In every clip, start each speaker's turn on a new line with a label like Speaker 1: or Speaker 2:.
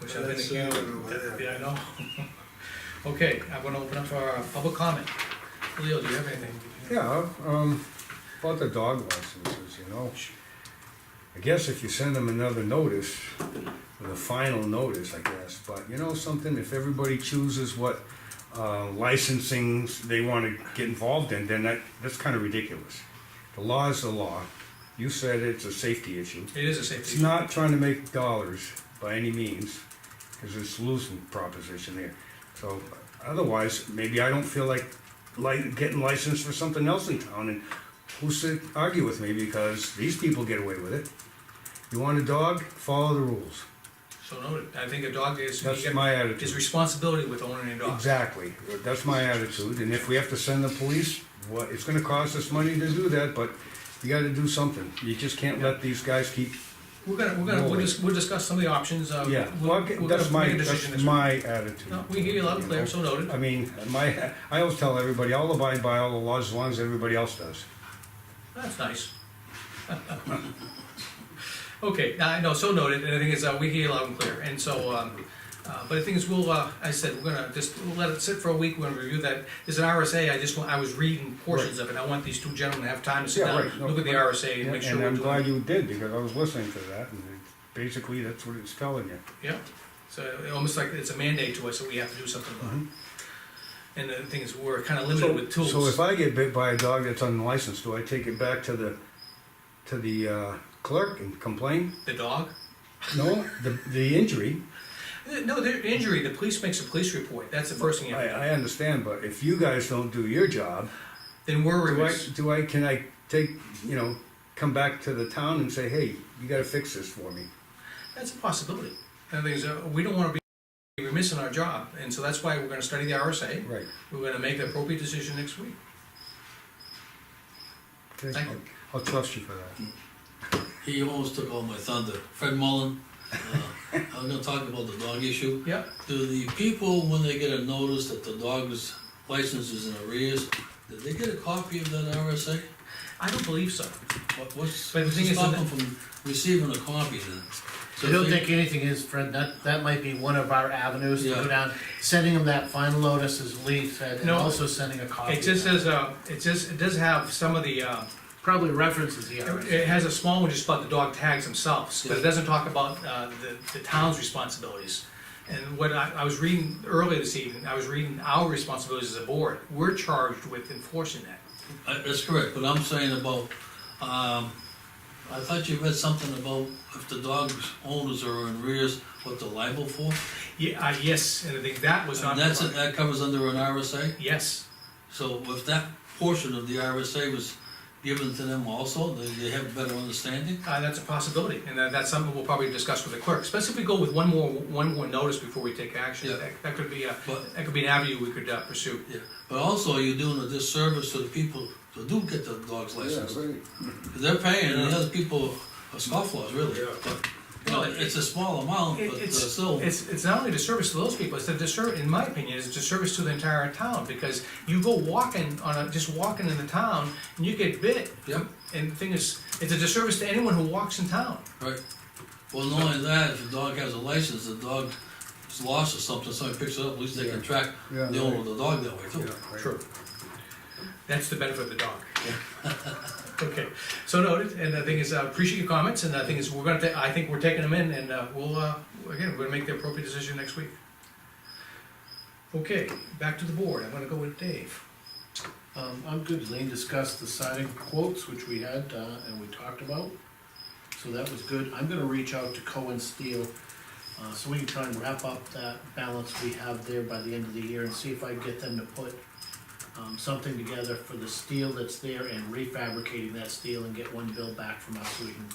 Speaker 1: Wish I'd been
Speaker 2: That's,
Speaker 1: a
Speaker 2: uh,
Speaker 1: kid.
Speaker 2: yeah.
Speaker 1: Yeah, I know. Okay, I'm gonna open up for uh, public comment. Leo, do you have anything?
Speaker 3: Yeah, um, about the dog licenses, you know. I guess if you send them another notice, the final notice, I guess, but you know something, if everybody chooses what, uh, licensings they wanna get involved in, then that, that's kinda ridiculous. The law is the law, you said it's a safety issue,
Speaker 1: It is a
Speaker 3: it's
Speaker 1: safety. issue.
Speaker 3: not trying to make dollars by any means, because it's losing proposition there. So otherwise, maybe I don't feel like like getting licensed for something else in town, and who's to argue with me because these people get away with it. You want a dog? Follow the rules.
Speaker 1: So noted. I think a dog is,
Speaker 3: That's
Speaker 1: you got-
Speaker 3: my
Speaker 1: is
Speaker 3: attitude.
Speaker 1: responsibility with owning a dog.
Speaker 3: Exactly. That's my attitude. And if we have to send the police, what it's going to cost us money to do that, but you got to do something. You just can't let these guys keep
Speaker 1: We're gonna, we're gonna, we'll
Speaker 3: Rolling.
Speaker 1: just, we'll discuss some of the options, uh.
Speaker 3: Yeah,
Speaker 1: we'll-
Speaker 3: well,
Speaker 1: we'll
Speaker 3: that's
Speaker 1: just
Speaker 3: my,
Speaker 1: make a decision
Speaker 3: that's
Speaker 1: this week.
Speaker 3: my attitude.
Speaker 1: No, we hear you loud and clear, so noted.
Speaker 3: I mean, my, I always tell everybody, I'll abide by all the laws as long as everybody else does.
Speaker 1: That's nice. Okay, now, I know, so noted, and the thing is, uh, we hear you loud and clear, and so, um, uh, but the thing is, we'll, uh, I said, we're gonna just, we'll let it sit for a week, we're gonna review that. There's an RSA, I just, want- I was reading portions of it, I want these two gentlemen to have time to sit
Speaker 3: Yeah,
Speaker 1: down,
Speaker 3: right, no,
Speaker 1: look at the
Speaker 3: right.
Speaker 1: RSA and make sure
Speaker 3: And
Speaker 1: we're
Speaker 3: I'm glad
Speaker 1: doing.
Speaker 3: you did, because I was listening to that, and it- basically, that's what it's telling you.
Speaker 1: Yeah, so it- almost like it's a mandate to us that we have to do something about it. And the thing is, we're kinda limited with tools.
Speaker 3: Mm-hmm. So if I get bit by a dog that's unlicensed, do I take it back to the, to the uh, clerk and complain?
Speaker 1: The dog? Uh,
Speaker 3: No, the, the injury,
Speaker 1: No, their injury, the police makes a police report, that's the first thing you
Speaker 3: I,
Speaker 1: have to do.
Speaker 3: I understand, but if you guys don't do your job,
Speaker 1: Then we're.
Speaker 3: Do I,
Speaker 1: remiss-
Speaker 3: do I, can I take, you know, come back to the town and say, hey, you gotta fix this for me?
Speaker 1: That's a possibility. And the thing is, uh, we don't wanna be remiss in our job, and so that's why we're gonna study the RSA.
Speaker 3: Right.
Speaker 1: We're gonna make the appropriate decision next week.
Speaker 3: Okay,
Speaker 1: Thank you.
Speaker 3: I'll- I'll trust you for that.
Speaker 2: He almost took all my thunder. Fred Mullen, uh, I'm gonna talk about the dog issue.
Speaker 1: Yeah,
Speaker 2: Do the people, when they get a notice that the dog's license is in arrears, did they get a copy of that RSA?
Speaker 1: I don't believe so.
Speaker 2: What- What's,
Speaker 1: But the
Speaker 2: what's
Speaker 1: thing
Speaker 2: to
Speaker 1: is
Speaker 2: stop
Speaker 1: that-
Speaker 2: them from receiving a copy then? So
Speaker 4: I don't
Speaker 2: they-
Speaker 4: think anything is, Fred, that, that might be one of our avenues to
Speaker 2: Yeah.
Speaker 4: go down, sending them that final notice, as Lee said, and
Speaker 1: No.
Speaker 4: also sending a copy.
Speaker 1: It
Speaker 4: of
Speaker 1: just
Speaker 4: that.
Speaker 1: says, uh, it just, it does have some of the, uh,
Speaker 4: Probably references the
Speaker 1: it
Speaker 4: RSA.
Speaker 1: it has a small one just about the dog tags themselves, but it
Speaker 2: Yeah.
Speaker 1: doesn't talk about, uh, the, the town's responsibilities. And what I, I was reading earlier this evening, I was reading our responsibilities as a board. We're charged with enforcing that.
Speaker 2: Uh, That's correct, but I'm saying about, um, I thought you read something about if the dog's owners are in arrears, what they're liable for?
Speaker 1: Yeah, uh, yes, and I think that was not.
Speaker 2: And that's,
Speaker 1: provided.
Speaker 2: that covers under an RSA?
Speaker 1: Yes,
Speaker 2: So if that portion of the RSA was given to them also, they, they have a better understanding?
Speaker 1: Uh, that's a possibility, and that, that's something we'll probably discuss with the clerk, especially if we go with one more, one more notice before we take action.
Speaker 2: Yeah.
Speaker 1: That, that could be a,
Speaker 2: But-
Speaker 1: that could be an avenue we could uh, pursue.
Speaker 2: Yeah, but also you're doing a disservice to the people who do get the dog's license. They're paying, and the other people are scofflaws, really. But, you know, it's a small amount,
Speaker 1: It-
Speaker 2: but uh,
Speaker 1: It's,
Speaker 2: still,
Speaker 1: it's, it's not only a disservice to those people, it's a disservice, in my opinion, it's a disservice to the entire town, because you go walking on a, just walking in the town, and you get bit,
Speaker 2: yep.
Speaker 1: and the thing is, it's a disservice to anyone who walks in town.
Speaker 2: Right. Well, not only that, if the dog has a license, the dog is lost or something, somebody picks it up, at least they can track
Speaker 3: Yeah,
Speaker 2: the owner of the dog that way too.
Speaker 1: True. That's the benefit of the dog. Okay, so noted, and the thing is, I appreciate your comments, and the thing is, we're gonna, ta- I think we're taking them in, and uh, we'll, uh, again, we're gonna make the appropriate decision next week. Okay, back to the board, I'm gonna go with Dave.
Speaker 4: Um, I'm good, Lean discussed the siding quotes, which we had, uh, and we talked about, so that was good. I'm gonna reach out to Cohen Steel, uh, so we can try and wrap up that balance we have there by the end of the year and see if I can get them to put um, something together for the steel that's there and refabricating that steel and get one bill back from us so we can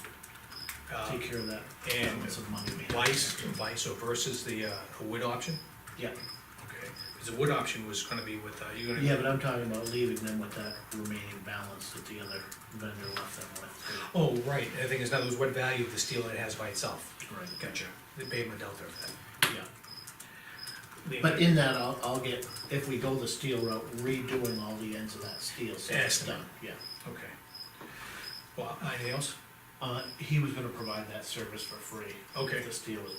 Speaker 1: Uh,
Speaker 4: take care of that
Speaker 1: and
Speaker 4: balance of money we have.
Speaker 1: Vice, vice or versus the, uh, a wood option?
Speaker 4: Yeah,
Speaker 1: Okay, because the wood option was gonna be with, uh, you're gonna.
Speaker 4: yeah, but I'm talking about leaving them with that remaining balance that the other vendor left them with.
Speaker 1: Oh, right, and the thing is, now, there's what value of the steel it has by itself.
Speaker 4: Right.
Speaker 1: Gotcha, the payment delta of that.
Speaker 4: Yeah. But in that, I'll, I'll get, if we go the steel route, redoing all the ends of that steel, so it's
Speaker 1: Estimate.
Speaker 4: done, yeah.
Speaker 1: Okay. Well, anything else?
Speaker 4: Uh, he was gonna provide that service for free.
Speaker 1: Okay.
Speaker 4: If this deal was